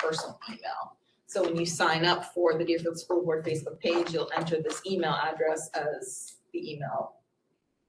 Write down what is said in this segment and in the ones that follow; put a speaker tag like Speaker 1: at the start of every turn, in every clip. Speaker 1: personal email. So when you sign up for the Deerfield School Board Facebook page, you'll enter this email address as the email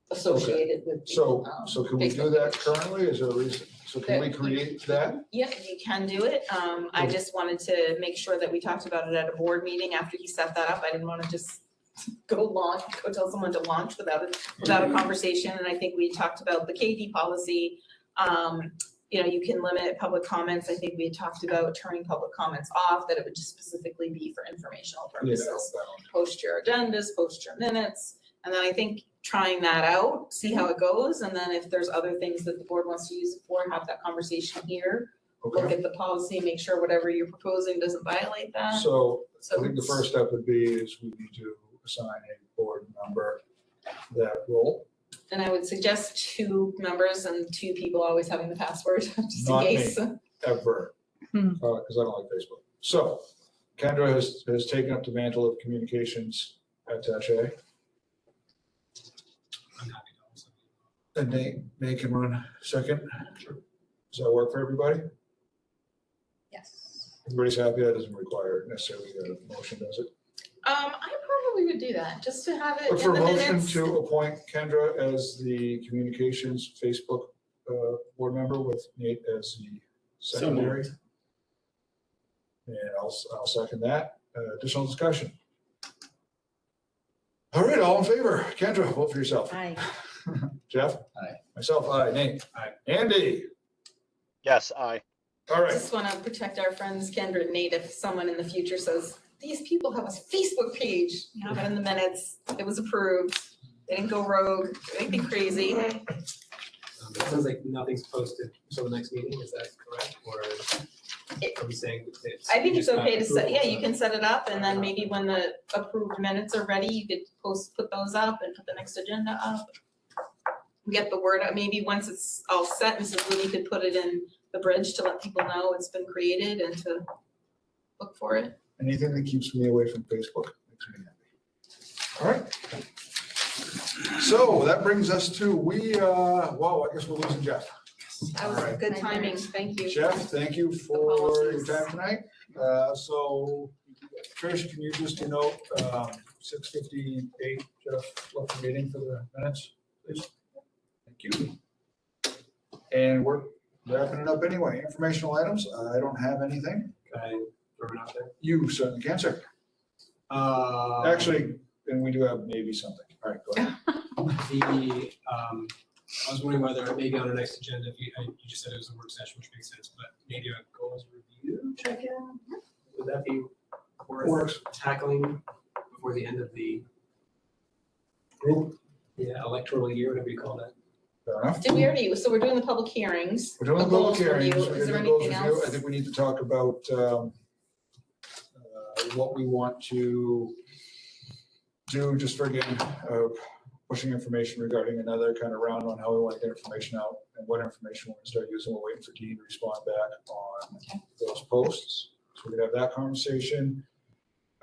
Speaker 1: associated with the,
Speaker 2: So,
Speaker 1: um,
Speaker 2: so can we do
Speaker 1: Facebook
Speaker 2: that
Speaker 1: page.
Speaker 2: currently? Is there a reason? So can we create that?
Speaker 1: Yeah, you can do it. Um, I
Speaker 2: Okay.
Speaker 1: just wanted to make sure that we talked about it at a board meeting after he set that up. I didn't wanna just go launch, go tell someone to launch without a, without a conversation, and I think we talked about the KD policy. Um, you know, you can limit public comments. I think we had talked about turning public comments off, that it would just specifically be for informational
Speaker 2: Yeah,
Speaker 1: purposes. Post your agendas, post your minutes, and then I think trying that out, see how it goes, and then if there's other things that the board wants to use it for, have that conversation here look
Speaker 2: Okay,
Speaker 1: at the policy, make sure whatever you're proposing doesn't violate that.
Speaker 2: so I
Speaker 1: So
Speaker 2: think the
Speaker 1: it's-
Speaker 2: first step would be is we need to assign a board member that role,
Speaker 1: And I would suggest two members and two people always having the password, just in
Speaker 2: Not me.
Speaker 1: case.
Speaker 2: ever,
Speaker 3: Hmm.
Speaker 2: because I don't like Facebook. So Kendra has, has taken up the mantle of communications attaché. And Nate, Nate can run second. Does that work for everybody?
Speaker 3: Yes.
Speaker 2: Everybody's happy, that doesn't require necessarily a motion, does it?
Speaker 1: Um, I probably would do that, just to have it
Speaker 2: But
Speaker 1: in
Speaker 2: for
Speaker 1: the
Speaker 2: a motion
Speaker 1: minutes.
Speaker 2: to appoint Kendra as the communications Facebook uh, board member with Nate as the
Speaker 4: So moved.
Speaker 2: secondary. And I'll, I'll second that. Uh, Additional discussion? All right, all in favor? Kendra, vote for yourself.
Speaker 3: Aye.
Speaker 2: Jeff?
Speaker 4: Aye.
Speaker 2: Myself, aye. Nate? Aye. Andy?
Speaker 5: Yes, I.
Speaker 2: All right.
Speaker 1: Just wanna protect our friends Kendra and Nate if someone in the future says, these people have a Facebook page, you have it in the minutes, it was approved. They didn't go rogue, anything crazy.
Speaker 6: Um, It sounds like nothing's posted until the next meeting, is that correct? Or
Speaker 1: It-
Speaker 6: are we saying that it's?
Speaker 1: I think it's
Speaker 6: just not
Speaker 1: okay to set, yeah,
Speaker 6: approval,
Speaker 1: you can set it up and then
Speaker 6: Alright.
Speaker 1: maybe when the approved minutes are ready, you could post, put those up and put the next agenda up. Get the word out, maybe once it's all set, Mrs. Lee could put it in the bridge to let people know it's been created and to look for it.
Speaker 2: Anything that keeps me away from Facebook makes me happy. All right. So that brings us to, we, uh, wow, I guess we're losing Jeff.
Speaker 1: That was
Speaker 2: Alright.
Speaker 1: good timing, thank you.
Speaker 2: Jeff, thank you for your
Speaker 1: policies.
Speaker 2: time tonight. Uh, So Trish, can you just denote six fifty-eight, Jeff, left the meeting for the minutes, please? Thank you. And we're wrapping it up anyway. Informational items, I don't have anything.
Speaker 6: Can I throw it out there?
Speaker 2: You certainly can, sir.
Speaker 6: Um,
Speaker 2: Actually, and we do have maybe something. All right, go ahead.
Speaker 6: The, um, I was wondering whether maybe on the next agenda, if you, I- you just said it was a work session, which makes sense, but maybe a goals review check-in? Would that be worth
Speaker 2: Works.
Speaker 6: tackling before the end of the,
Speaker 2: Group,
Speaker 6: yeah, electoral year, whatever you call that?
Speaker 2: fair enough.
Speaker 1: Did we already, so we're doing the public hearings.
Speaker 2: We're doing
Speaker 1: the
Speaker 2: the
Speaker 1: goals
Speaker 2: public
Speaker 1: review.
Speaker 2: hearings. We're
Speaker 1: Is there
Speaker 2: doing the goals
Speaker 1: anything
Speaker 2: review.
Speaker 1: else?
Speaker 2: I think we need to talk about um, uh, what we want to do, just for again, uh, pushing information regarding another kind of round on how we want to get information out and what information we're going to start using. We're waiting for Dean to respond back on those posts. So we could have that conversation.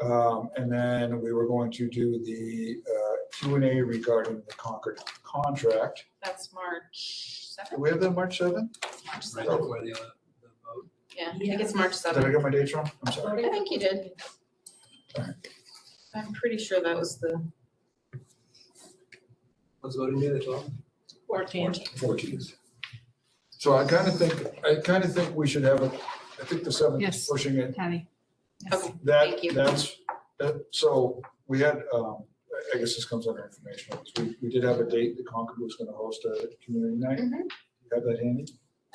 Speaker 2: Um, And then we were going to do the uh, Q and A regarding the Concord contract.
Speaker 1: That's March
Speaker 2: Do
Speaker 1: seventh,
Speaker 2: we have that March 7th?
Speaker 1: March
Speaker 6: Right
Speaker 1: seventh,
Speaker 6: before the, uh, the vote?
Speaker 1: yeah, I think it's March seventh.
Speaker 2: Did I get my dates wrong? I'm sorry.
Speaker 1: I think you did.
Speaker 2: Alright.
Speaker 1: I'm pretty sure that was the
Speaker 6: What's voting day, the twelfth?
Speaker 3: Fourteen.
Speaker 2: fourteenth. So I kind of think, I kind of think we should have, a. I think the seventh is
Speaker 3: Yes.
Speaker 2: pushing it.
Speaker 3: Patty.
Speaker 1: Okay.
Speaker 2: That,
Speaker 1: Thank you.
Speaker 2: that's, that, so we had, um, I- I guess this comes under information. We, we did have a date that Concord was going to host a community night.
Speaker 1: Mhm.
Speaker 2: You Have that handy,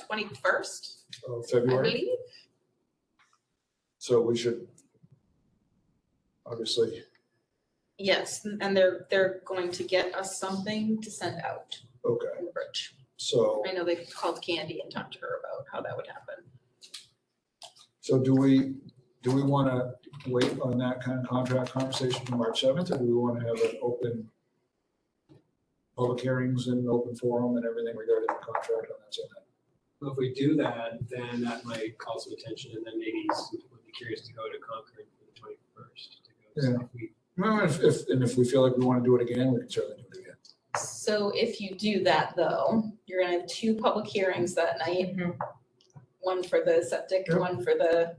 Speaker 1: twenty-first,
Speaker 2: of
Speaker 1: I
Speaker 2: February.
Speaker 1: believe.
Speaker 2: So we should obviously,
Speaker 1: Yes, and they're, they're going to get us something to send out
Speaker 2: okay,
Speaker 1: in the bridge.
Speaker 2: so,
Speaker 1: I know they called Candy and talked to her about how that would happen.
Speaker 2: so do we, do we want to wait on that kind of contract conversation to March seventh? Or do we want to have an open public hearings and open forum and everything regarding the contract on that same night.
Speaker 6: Well, if we do that, then that might call some attention and then maybe some people would be curious to go to Concord for the twenty-first.
Speaker 2: Yeah. Well, if, if, and if we feel like we want to do it again, we can certainly do it again.
Speaker 1: So if you do that though, you're gonna have two public hearings that night, one for the septic,
Speaker 2: Yep.
Speaker 1: one for the